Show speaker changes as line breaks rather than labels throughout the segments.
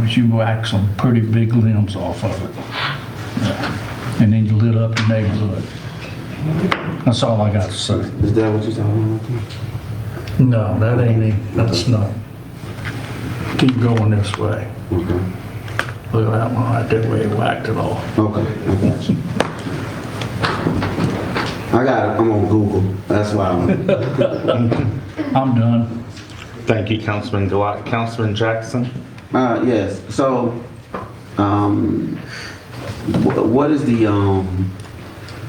was you whacked some pretty big limbs off of it. And then you lit up the neighborhood. That's all I got to say.
Is that what you're talking about? there?
No, that ain't it. That's not. Keep going this way.
Okay.
Look at that one right there where he whacked it off.
Okay, I got you. I got it. I'm on Google. That's why I'm.
I'm done.
Thank you, Councilman Gilat. Councilman Jackson?
Uh, yes. So, um, wh- what is the um,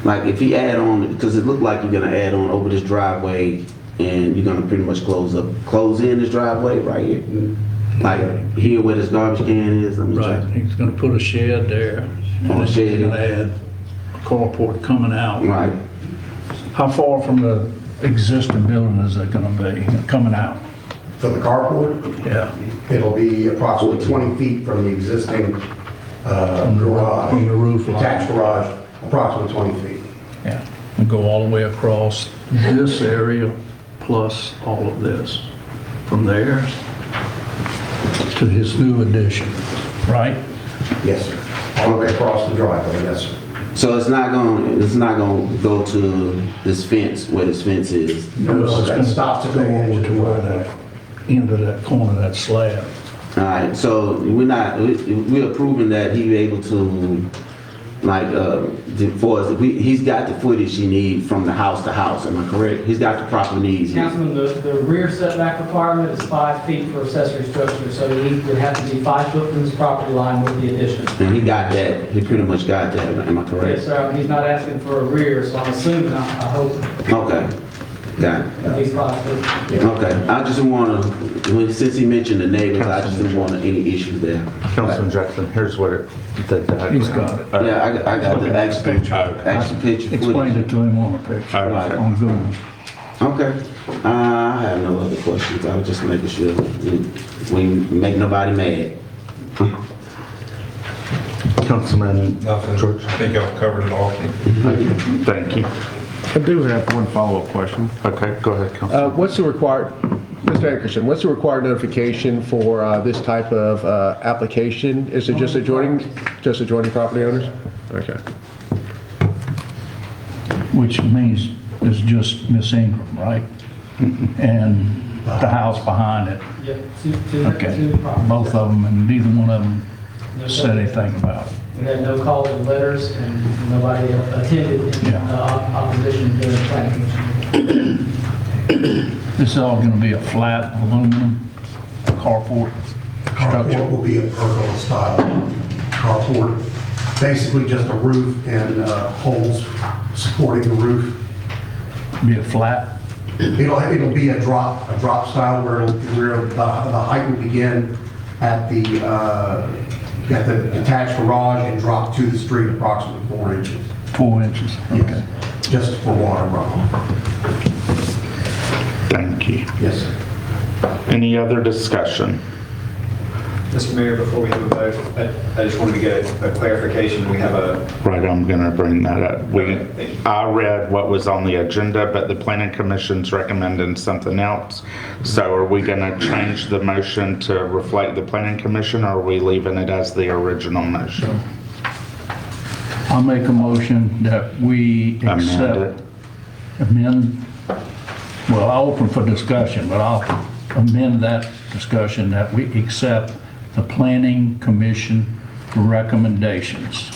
like if you add on because it looked like you're gonna add on over this driveway and you're gonna pretty much close up, close in this driveway right here, Mm-hmm. like here where this garbage can is. Let me
Right,
check.
he's gonna put a shed there. and
Oh, a shed.
He's gonna add a carport coming out.
Right.
How far from the existing building is it gonna be, coming out?
For the carport,
Yeah.
it'll be approximately 20 feet from the existing uh,
From the-
garage.
from the roof line.
Attached garage, approximately 20 feet.
Yeah, and go all the way across this area plus all of this, from there to his new addition, right?
Yes, sir. All the way across the driveway, yes, sir.
So it's not going. to It's not going to go to this fence where this fence is.
No, so that stops at the
Go
edge
over
of the
to where
driveway.
that, into that corner, of that slab.
All right, so we're not, we- we're approving that he able to, like, uh, the- for us, we, he's got the footage he need from the house to house, am I correct? He's got the proper needs.
Councilman, the, the rear setback requirement is five feet for accessory structure, so he would have to be five foot from his property line with the addition.
And he got that, he pretty much got that, am I
Yes,
correct?
sir, he's not asking for a rear, so I'm assuming, I I hope,
Okay, got it.
at least five foot.
Okay, I just wanna, when- since he mentioned the neighbors, I just didn't want any issues there.
Councilman Jackson, here's what it, the diagram.
He's got it.
Yeah, I, got- I got the actual, actual picture.
Explained
footage.
it to him on a picture,
All
right.
on Google.
Okay. Uh, I have no other questions. I was just making sure we- we make nobody mad.
Councilman uh,
Nothing.
George?
I think y'all covered it all.
Thank you.
I do have one follow-up question.
Okay, go ahead, Councilman.
Uh, What's the required, Mr. Ankerson, what's the required notification for uh, this type of uh, application? Is it just adjoining, just adjoining property owners? Okay.
which means it's just Miss Ingram, right? And the house behind it,
Yeah, two, two,
okay.
two properties.
Both of them, and neither one of them said anything about it.
We had no calls or letters, and nobody attended in
Yeah.
uh, opposition to the planning commission.
This is all gonna be a flat aluminum carport
Carport
structure.
will be a pergola style carport, basically just a roof and uh, holes supporting the roof.
Be a flat,
It'll, it'll be a drop, a drop style where, it'll- where the, the height will begin at the, uh, at the attached garage and drop to the street approximately four inches.
four inches, okay.
Just for water runoff.
Thank you.
Yes, sir.
Any other discussion?
Mr. Mayor, before we have a vote, I- I just wanted to get a a clarification. We have a,
Right, I'm going to bring that up. We, I read what was on the agenda, but the planning commission's recommending something else. So are we going to change the motion to reflect the planning commission, or are we leaving it as the original motion?
I'll make a motion that we
Amend
accept,
it.
amend, well, I'll open for discussion, but I'll amend that discussion that we accept the planning commission recommendations.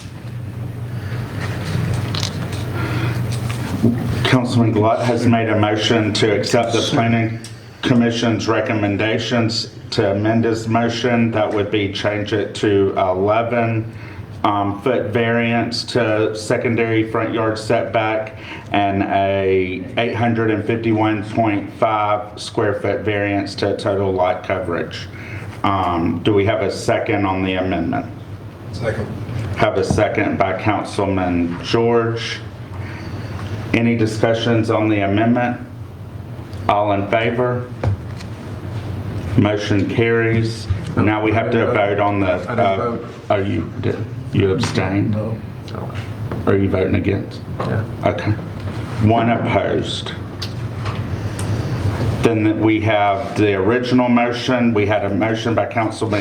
Councilman Glut has made a motion to accept the planning commission's recommendations to amend his motion. That would be change it to 11 um, foot variance to secondary front yard setback and a 851.5 square foot variance to total lot coverage. Um, Do we have a second on the amendment?
Second.
Have a second by Councilman George. Any discussions on the amendment? All in favor? Motion carries. Now we have to vote on the.
I didn't vote.
Oh, you did. You abstained?
No.
Are you voting against?
Yeah.
Okay. One opposed. Then we have the original motion. We had a motion by Councilman